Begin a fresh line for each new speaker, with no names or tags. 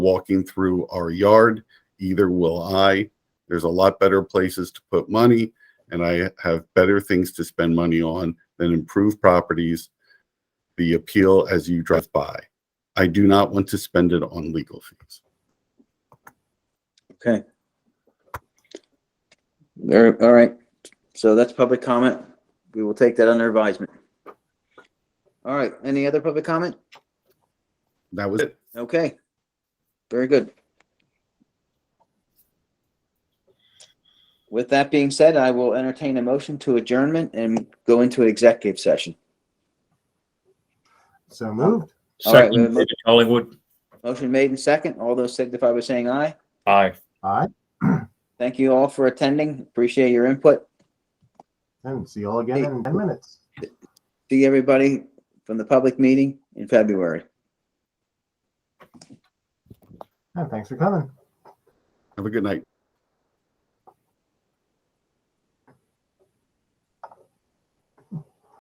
walking through our yard. Either will I. There's a lot better places to put money, and I have better things to spend money on than improved properties. The appeal as you drive by. I do not want to spend it on legal fees.
Okay. There, all right. So that's public comment. We will take that under advisement. All right, any other public comment?
That was it.
Okay. Very good. With that being said, I will entertain a motion to adjournment and go into executive session.
So moved.
All right, we have a
Second, David Collingwood.
Motion made and second. All those signify by saying aye.
Aye.
All right.
Thank you all for attending. Appreciate your input.
And see you all again in 10 minutes.
See everybody from the public meeting in February.
And thanks for coming.
Have a good night.